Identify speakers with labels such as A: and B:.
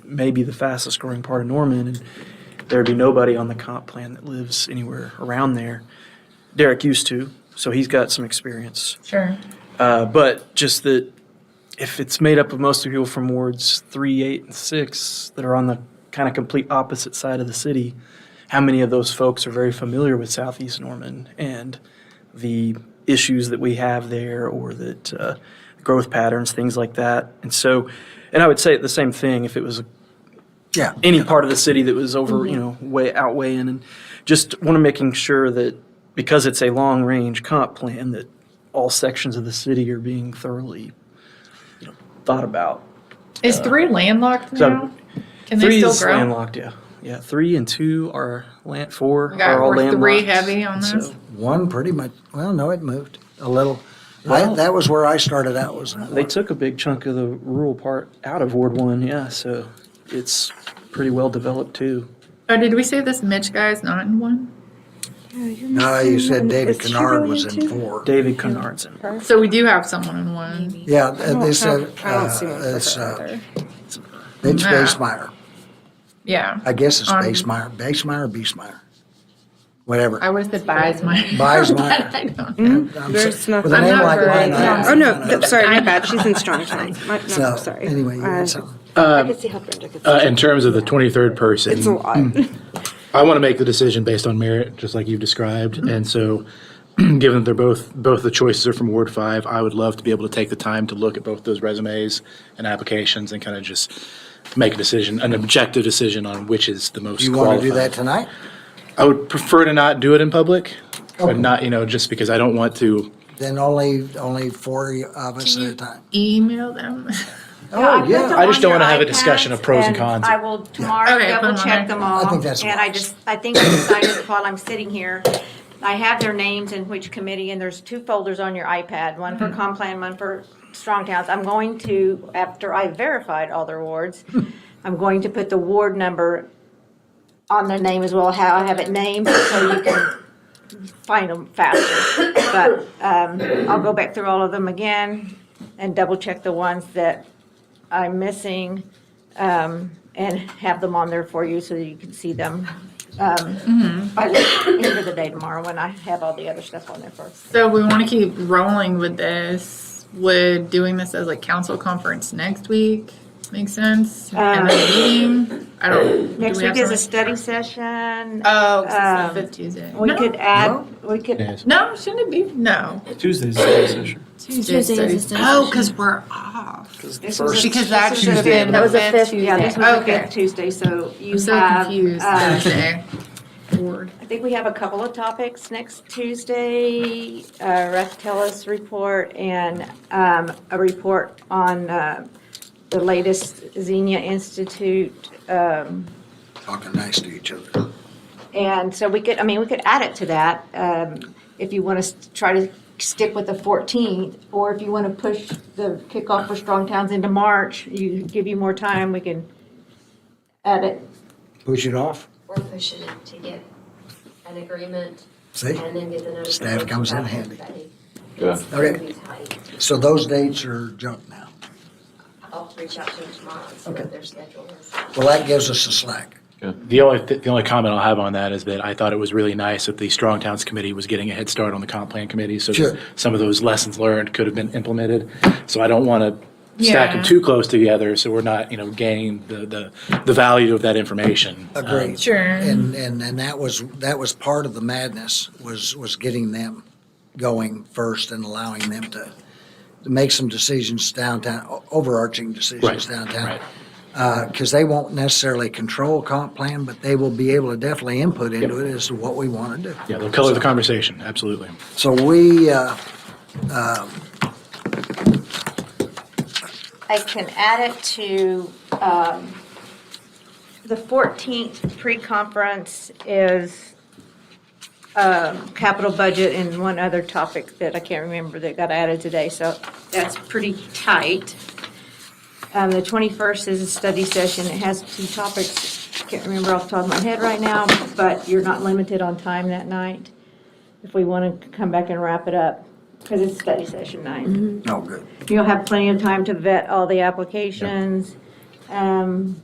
A: maybe the fastest growing part of Norman, and there'd be nobody on the comp plan that lives anywhere around there. Derek used to, so he's got some experience.
B: Sure.
A: Uh, but just that if it's made up of mostly people from wards three, eight, and six that are on the kind of complete opposite side of the city, how many of those folks are very familiar with Southeast Norman and the issues that we have there or that uh, growth patterns, things like that? And so, and I would say the same thing if it was a
C: Yeah.
A: any part of the city that was over,
B: Mm-hmm.
A: you know, way outweighing, and just want to making sure that because it's a long range comp plan, that all sections of the city are being thoroughly, you know, thought about.
B: Is three landlocked
A: Uh, so-
B: now? Can they
A: Three
B: still
A: is
B: grow?
A: landlocked, yeah, yeah. Three and two are land, four
B: Okay,
A: are all
B: we're
A: landlocked.
B: three heavy on
A: and so-
B: this?
C: One pretty much, well, no, it moved a little. I, that was where I started out was. in
A: They
C: one.
A: took a big chunk of the rural part out of Ward One, yeah, so it's pretty well developed too.
B: Oh, did we say this Mitch guy is not in one?
C: No, Uh, you said David Kennard was in
D: four.
C: four.
A: David Cunard's in
B: So we do have someone in one.
C: Yeah, and they said,
D: I don't
C: uh,
D: see one for
C: it's,
D: her
C: uh,
D: either.
C: it's
B: Nah.
C: Basemeyer.
B: Yeah.
C: I guess it's
B: Um,
C: Basemeyer, Basemeyer, Beesmeyer, whatever.
B: I would have said Biesmeyer.
C: Biesmeyer.
B: But I don't know.
C: I'm so-
D: There's nothing.
C: With a name
B: I'm not
C: like
B: very-
C: mine, I-
D: Oh, no, th- sorry, my bad, she's in strong tonight. My-
C: So,
D: No, sorry.
C: anyway, you
D: Uh,
C: had something.
D: I could see how Brenda could.
E: Uh,
D: see
E: in
D: it.
E: terms of the 23rd person,
D: It's a lot.
C: Hmm.
E: I want to make the decision based on merit, just like you've described. And so, given that they're both, both the choices are from Ward 5, I would love to be able to take the time to look at both those resumes and applications and kind of just make a decision, an objective decision on which is the most
C: Do you
E: qualified.
C: want to do that tonight?
E: I would prefer to not do it in public, but not, you know, just because I don't want to.
C: Then only, only four of us at a
B: You
C: time.
B: Email them.
C: Oh,
F: put them
C: yeah.
E: I just
F: on
E: don't
F: your
E: wanna have a
F: iPads,
E: discussion of pros and cons.
F: I will tomorrow
B: Okay, put them on
F: double
B: there.
F: check them all.
C: I think that's
F: Um, And I
C: wise.
F: just, I think I decided while I'm sitting here, I have their names and which committee, and there's two folders on your iPad, one
C: Mm-hmm.
F: for Complan, one for Strong Towns. I'm going to, after I verified all their wards, I'm going to put the ward number on their name as well, how I have it named, so you can find them faster. But um, I'll go back through all of them again and double check the ones that I'm missing um, and have them on there for you so that you can see them. um, By the end of the day tomorrow when I have all the other stuff on there first.
B: So we want to keep rolling with this. Would doing this as like council conference next week make sense? And then meeting? I don't. do
F: Next
B: we have
F: week is a
B: something-
F: study session.
B: Oh, 'cause it's
F: um,
B: the fifth Tuesday.
F: We
B: No.
F: could add, we could,
B: No, shouldn't it be? No.
A: Tuesday's study session.
B: Tuesday's
G: Tuesday is
B: studies.
G: the
B: Oh, because we're off. Because that
F: this
B: should
F: was
B: have
F: the-
B: been.
F: that was
D: the fifth,
F: yeah, this was the
B: Okay.
F: fifth Tuesday, so you
B: I'm so
F: have.
B: confused.
F: uh,
B: Thursday. Bored.
F: I think we have a couple of topics next Tuesday, uh, Ref Tellus report and um, a report on uh, the latest Xenia Institute. um,
C: Talking nice to each other.
F: And so we could, I mean, we could add it to that um, if you want to try to stick with the 14th, or if you want to push the kickoff for Strong Towns into March, you, give you more time, we can add it.
C: Push it off,
H: We're pushing it to get an agreement
C: see?
H: and then get the notice.
C: Staff comes in handy.
H: It's gonna
C: Okay,
H: be tight.
C: so those dates are junk now.
H: I'll reach out to them tomorrow and see
C: Okay.
H: what their schedule is.
C: Well, that gives us a slack.
E: The only, th- the only comment I'll have on that is that I thought it was really nice that the Strong Towns Committee was getting a head start on the comp plan committee. So
C: Sure.
E: that some of those lessons learned could have been implemented. So I don't want to stack
B: Yeah.
E: them too close together so we're not, you know, gaining the, the, the value of that information. Uh,
C: Agreed.
B: Sure.
C: And, and, and that was, that was part of the madness, was, was getting them going first and allowing them to to make some decisions downtown, o- overarching decisions
E: Right,
C: downtown.
E: right.
C: Because they won't necessarily control comp plan, but they will be able to definitely input into it as to what we want to do.
E: Yeah, they'll color the conversation, absolutely.
C: So we, uh,
F: I can add it to um, the 14th pre-conference is um, capital budget and one other topic that I can't remember that got added today, so that's pretty tight. Um, The 21st is a study session. It has two topics. Can't remember off the top of my head right now, but you're not limited on time that night if we want to come back and wrap it up because it's study session night.
C: no, good.
F: You'll have plenty of time to vet all the applications. Um,